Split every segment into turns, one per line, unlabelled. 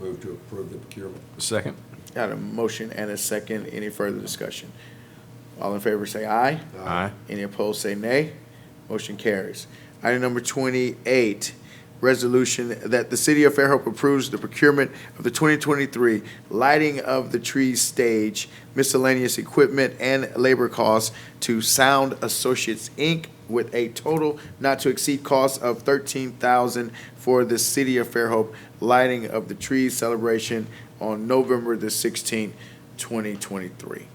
Move to approve the procurement.
Second.
Got a motion and a second. Any further discussion? All in favor say aye.
Aye.
Any opposed say nay. Motion carries. Item number twenty-eight, resolution that the city of Fairhope approves the procurement of the twenty twenty-three lighting of the trees stage, miscellaneous equipment and labor costs to Sound Associates, Inc. with a total not to exceed cost of thirteen thousand for the city of Fairhope lighting of the trees celebration on November the sixteenth, twenty twenty-three.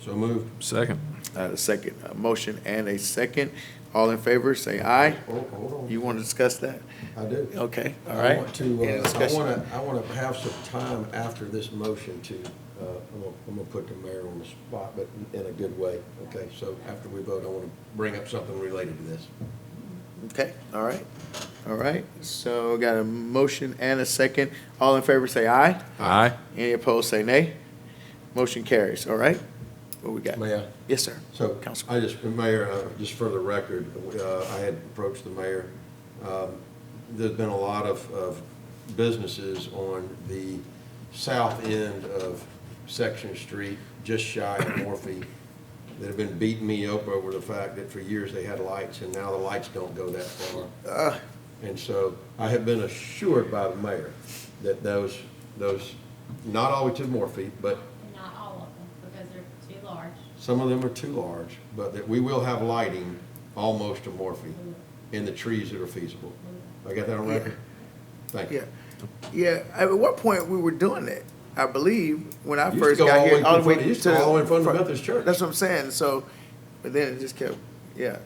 So moved.
Second.
Uh, a second, a motion and a second. All in favor, say aye.
Oh, Hold hold
You want to discuss that?
on, I do.
Okay, all
I
right.
want to,
Any
uh, I
discussion?
want to, I want to have some time after this motion to, uh, I'm gonna- I'm going to put the mayor on the spot, but in a good way, okay? So after we vote, I want to bring up something related to this.
Okay, all right, all right. So got a motion and a second. All in favor, say aye.
Aye.
Any opposed, say nay. Motion carries, all right? What we got?
Mayor?
Yes, sir.
So
Councilman.
I just, Mayor, uh, just for the record, uh, I had approached the mayor. Um, There's been a lot of, of businesses on the south end of Section Street, just shy of Morphe, that have been beating me up over the fact that for years they had lights and now the lights don't go that far. And so I have been assured by the mayor that those, those, not always to Morphe, but
Not all of them, because they're too large.
some of them are too large, but that we will have lighting almost to Morphe in the trees that are feasible. I got that on record? Thank
Yeah,
you.
yeah. At what point we were doing it, I believe, when I
Used to
first
go all
got
the way
here, all the
in
way
front-
to.
used to go all the way in front of Methodist Church.
That's what I'm saying, so, but then it just kept, yeah.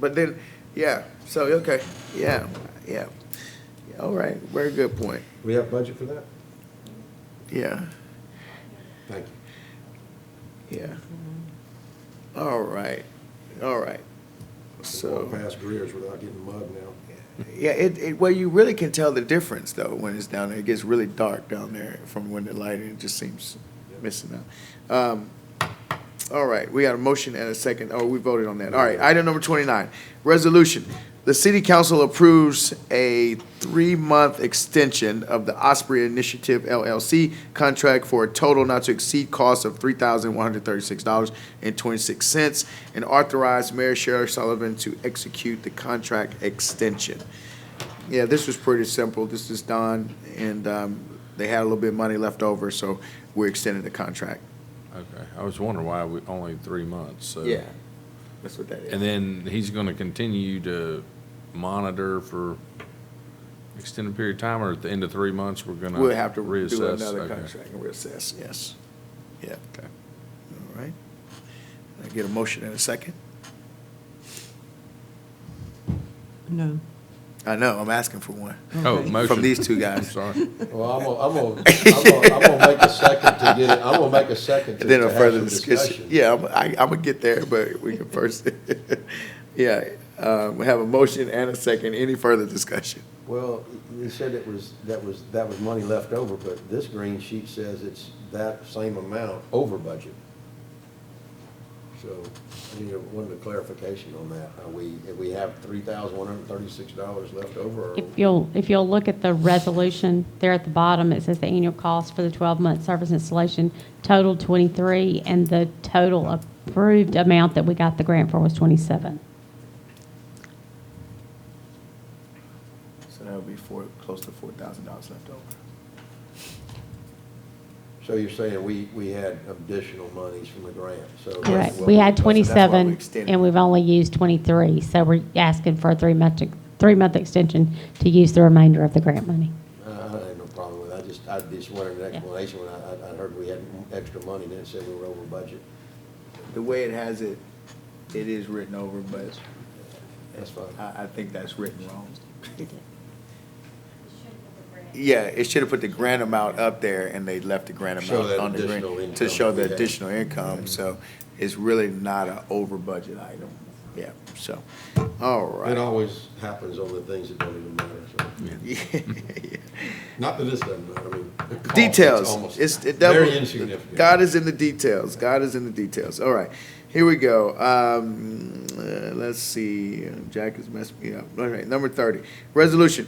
But then, yeah, so, okay, yeah, yeah. Yeah, All right, very good point,
We have budget for that?
yeah,
Thank you.
yeah. All right, all right, so.
Walk Past Greer's without getting mud now.
Yeah, it, it, well, you really can tell the difference though when it's down there. It gets really dark down there from when the lighting it just seems missing out. Um, all right, we got a motion and a second. Oh, we voted on that. All right, item number twenty-nine, resolution. The city council approves a three-month extension of the Osprey Initiative LLC contract for a total not to exceed cost of three thousand one hundred thirty-six dollars and twenty-six cents and authorize Mayor Sherrill Sullivan to execute the contract extension. Yeah, this was pretty simple. This is done, and um, they had a little bit of money left over, so we're extending the contract.
Okay. I was wondering why we, only three months, so.
That's what that is.
And then he's gonna continue to monitor for extended period of time, or at the end of three months, we're gonna?
We'll have to do
reassess?
another
Okay.
contract and reassess, yes. Yeah,
Okay.
all right. I get a motion in a second?
No.
I know, I'm asking for one.
Oh, motion.
From these two
I'm
guys.
sorry.
Well, I'm gonna, I'm gonna, I'm gonna, I'm gonna make a second to get it, I'm gonna make a second to
And then
to
a
have
further
some
discussion.
discussion.
Yeah, I'm, I, I'm gonna get there, but we can first, yeah, uh, we have a motion and a second. Any further discussion?
Well, you said it was, that was, that was money left over, but this green sheet says it's that same amount over budget. So I need a, wanted a clarification on that. Are we, if we have three thousand one hundred and thirty-six dollars left over, or
If you'll, if you'll look at the resolution there at the bottom, it says the annual cost for the 12-month service installation totaled 23, and the total approved amount that we got the grant for was 27.
So that'll be four, close to four thousand dollars left over.
so you're saying we, we had additional monies from the grant, so. that's
Correct.
what
We had
that's what-
27,
extended
and we've only used 23, so we're asking for a three-month, three-month extension to use the remainder of the grant money.
I I had no problem with it. I just, I just wanted an explanation when I, I- I heard we had extra money, then it said we were over budget.
The way it has it, it is written over, but
That's fine.
I, I think that's written wrong.
It
Yeah, it should have put the grant amount up there and they left the grant
Show
amount
that
on the
additional
grant
income
to show
we
the
had.
additional income, so it's really not an over budget item. Yeah, so, all
It
right.
always happens on the things that don't even matter, so.
Yeah, yeah.
Not that this doesn't matter, I mean. the cost, it's
Details,
almost
it's, it
Very
double,
insignificant.
God is in the details, God is in the details, all right, here we go, um, uh, let's see, Jack has messed me up, all right, number thirty. Resolution,